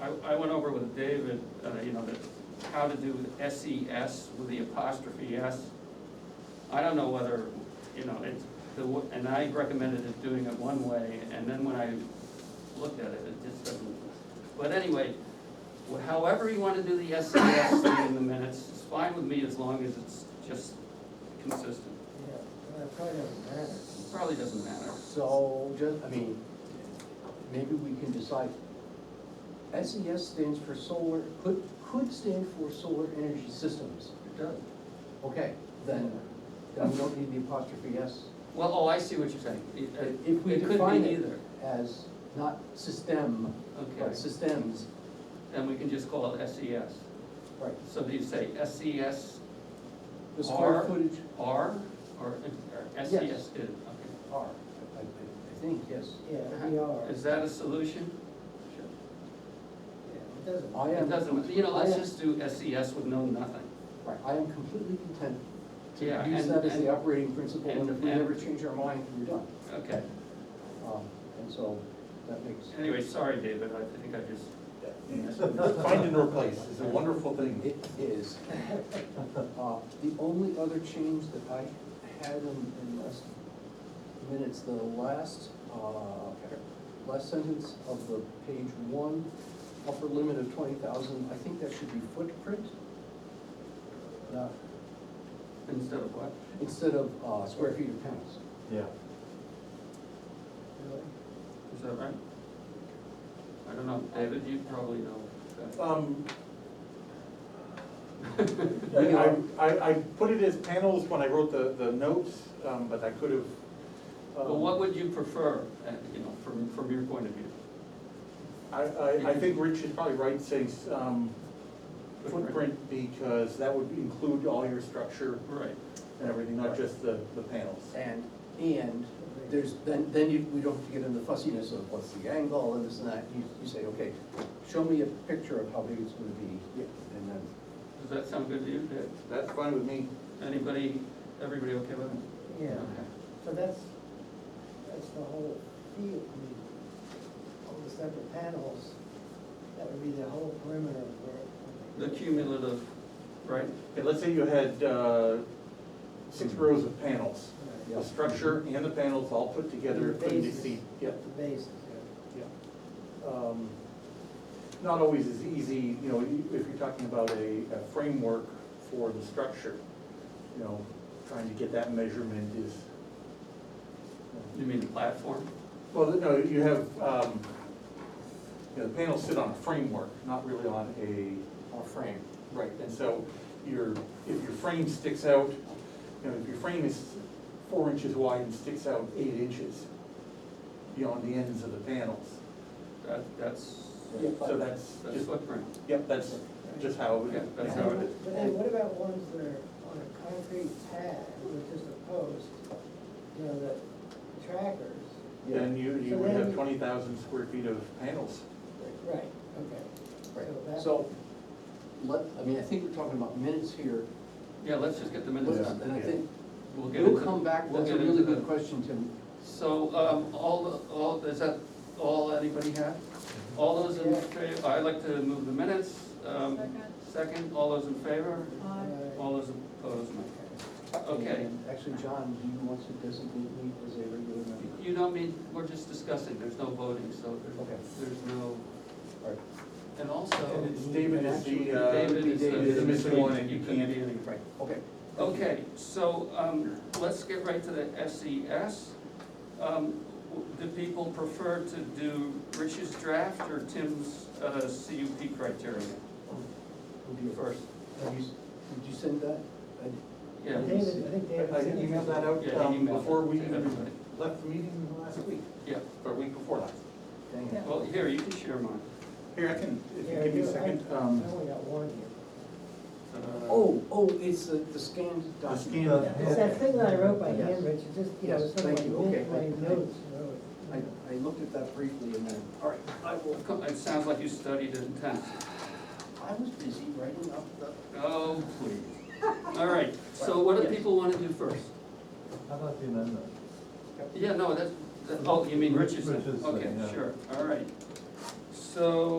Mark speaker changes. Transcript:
Speaker 1: I, I went over with David, uh, you know, that, how to do SES with the apostrophe S. I don't know whether, you know, it's, the, w- and I recommended it doing it one way, and then when I looked at it, it just doesn't. But anyway, wh- however you wanna do the SES thing in the minutes, it's fine with me as long as it's just consistent.
Speaker 2: Yeah, well, it probably doesn't matter.
Speaker 1: It Probably doesn't matter.
Speaker 2: So, just, I mean, maybe we can decide, SES stands for solar, could, could stand for solar energy systems.
Speaker 3: It does.
Speaker 2: Okay, then, then we don't need the apostrophe S.
Speaker 1: Well, oh, I see what you're saying. It- it-
Speaker 2: If we
Speaker 1: it could be
Speaker 2: define it
Speaker 1: either.
Speaker 2: as not system,
Speaker 1: Okay,
Speaker 2: but systems,
Speaker 1: then we can just call it E SES.
Speaker 2: right,
Speaker 1: So do you say SES
Speaker 2: the square
Speaker 1: Or-
Speaker 2: footage
Speaker 1: R or or SES
Speaker 2: Yes.
Speaker 1: is, okay.
Speaker 2: are, I- I, I think, yes.
Speaker 3: Yeah, we are.
Speaker 1: Is that a solution?
Speaker 3: Yeah, It doesn't.
Speaker 2: I
Speaker 1: It
Speaker 2: am,
Speaker 1: doesn't, you know, let's
Speaker 2: I am-
Speaker 1: just do SES with no nothing.
Speaker 2: right, I am completely content to
Speaker 1: Yeah,
Speaker 2: use
Speaker 1: and-
Speaker 2: that as
Speaker 1: and-
Speaker 2: the operating principle, and if we
Speaker 1: and-
Speaker 2: ever change our mind, we're done.
Speaker 1: Okay,
Speaker 2: Um, And so that makes,
Speaker 1: anyway, sorry, David, I think I just,
Speaker 4: Find and replace is a wonderful thing.
Speaker 2: it is. Uh, The only other change that I had in, in last minutes, the last, uh, last sentence of the page one, upper limit of twenty thousand, I think that should be footprint. not-
Speaker 1: instead of what?
Speaker 2: Instead of uh, square feet of pounds.
Speaker 4: Yeah.
Speaker 3: Really?
Speaker 1: Is that right? I don't know, David, you probably know. that.
Speaker 4: Um,
Speaker 2: We
Speaker 4: I,
Speaker 2: are-
Speaker 4: I, I put it as panels when I wrote the, the notes, um, but I could have. um,
Speaker 1: But what would you prefer, uh, you know, from, from your point of view?
Speaker 4: I, I, I think Rich is probably right saying, um, footprint, because that would include all your structure
Speaker 1: Right,
Speaker 4: and everything, not just the, the panels.
Speaker 2: And, and there's, then, then you, we don't have to get into fussiness of what's the angle and this and that. You, you say, okay, show me a picture of how big it's gonna be,
Speaker 4: Yeah.
Speaker 2: and then
Speaker 1: does that sound good to you, Dave?
Speaker 4: That's fine with me.
Speaker 1: Anybody, everybody okay with it?
Speaker 3: Yeah,
Speaker 1: Okay.
Speaker 3: so that's, that's the whole field, I mean, all the separate panels, that would be the whole perimeter of where.
Speaker 1: The cumulative, right?
Speaker 4: Okay, let's say you had, uh, six rows of panels,
Speaker 3: Right.
Speaker 4: the structure and the panels all put
Speaker 3: The
Speaker 4: together, couldn't
Speaker 3: bases.
Speaker 4: exceed, yeah.
Speaker 3: The bases, yeah.
Speaker 4: Yeah. Um, Not always as easy, you know, you- if you're talking about a, a framework for the structure, you know, trying to get that measurement is.
Speaker 1: You mean the platform?
Speaker 4: Well, no, you have, um, you know, the panels sit on a framework, not really on a. On a frame. Right, and so your, if your frame sticks out, you know, if your frame is four inches wide and sticks out eight inches beyond the ends of the panels,
Speaker 1: That, that's,
Speaker 2: Yeah.
Speaker 4: so that's
Speaker 1: that's
Speaker 4: just,
Speaker 1: footprint.
Speaker 4: yep, that's just how,
Speaker 1: Yeah,
Speaker 4: it-
Speaker 1: that's
Speaker 3: But
Speaker 1: how
Speaker 3: then-
Speaker 1: it is.
Speaker 3: But then what about ones that are on a concrete pad with just a post, you know, the trackers?
Speaker 4: then you, you
Speaker 3: So
Speaker 4: would have
Speaker 3: then-
Speaker 4: twenty thousand square feet of panels.
Speaker 3: Right, okay.
Speaker 2: Right,
Speaker 3: So that-
Speaker 2: so, let, I mean, I think we're talking about minutes here,
Speaker 1: Yeah, let's just get the minutes
Speaker 2: Let's-
Speaker 1: done.
Speaker 2: and I think,
Speaker 1: We'll get
Speaker 2: we'll
Speaker 1: into-
Speaker 2: come back,
Speaker 1: we'll
Speaker 2: that's a
Speaker 1: get
Speaker 2: really
Speaker 1: into
Speaker 2: good
Speaker 1: the-
Speaker 2: question, Tim.
Speaker 1: So, um, all, the- all, is that all anybody had? All those in
Speaker 3: Yeah.
Speaker 1: favor, I'd like to move the minutes. um,
Speaker 5: Second.
Speaker 1: Second, all those in favor?
Speaker 5: Aye.
Speaker 3: Uh,
Speaker 1: All those opposed, no. Okay,
Speaker 2: And Actually, John, do you want to designate me as a regular member?
Speaker 1: you don't mean, we're just discussing, there's no voting, so
Speaker 2: Okay.
Speaker 1: there's, there's no,
Speaker 2: All right,
Speaker 1: and also,
Speaker 4: And it's David is the, uh,
Speaker 1: David is the-
Speaker 2: David
Speaker 4: is the missing one and
Speaker 1: you
Speaker 4: you
Speaker 1: couldn't
Speaker 4: can't-
Speaker 1: be any-
Speaker 2: right, okay.
Speaker 1: Okay, so, um, let's get right to the SES. Um, w- do people prefer to do Rich's draft or Tim's, uh, CUP criteria
Speaker 2: Would you,
Speaker 1: first?
Speaker 2: have you, did you send that? I did.
Speaker 1: Yeah,
Speaker 3: David, I think
Speaker 4: I
Speaker 3: David.
Speaker 4: I emailed Uh, that out,
Speaker 1: Yeah, he
Speaker 4: um,
Speaker 1: emailed
Speaker 4: before
Speaker 1: it
Speaker 4: we
Speaker 1: to everybody.
Speaker 4: left the meeting last week,
Speaker 1: yeah,
Speaker 4: or week before last.
Speaker 2: Dang it.
Speaker 5: Yeah.
Speaker 1: well, here, you can share mine.
Speaker 4: Here, I can, if you
Speaker 3: Yeah,
Speaker 4: give me a
Speaker 3: you- I-
Speaker 4: second,
Speaker 3: I
Speaker 4: um,
Speaker 3: only got one here.
Speaker 1: Uh,
Speaker 2: Oh, oh, it's the, the scanned
Speaker 4: the
Speaker 2: document.
Speaker 4: scan.
Speaker 3: It's that thing that I wrote by
Speaker 2: Yes.
Speaker 3: hand, Rich, it just, you know,
Speaker 2: Yes,
Speaker 3: it's sort of
Speaker 2: thank you.
Speaker 3: like,
Speaker 2: Okay.
Speaker 3: my notes, you know.
Speaker 2: I, I looked at that briefly and then, all right, I will,
Speaker 1: co- It sounds like you studied it intense.
Speaker 2: I was busy writing up the.
Speaker 1: Oh, please. All right, so what do
Speaker 2: Yes.
Speaker 1: people wanna do first?
Speaker 6: How about the amendment?
Speaker 1: Yeah, no, that's, that- oh, you mean Rich's?
Speaker 6: Rich's,
Speaker 1: Okay,
Speaker 6: yeah.
Speaker 1: sure, all right. So,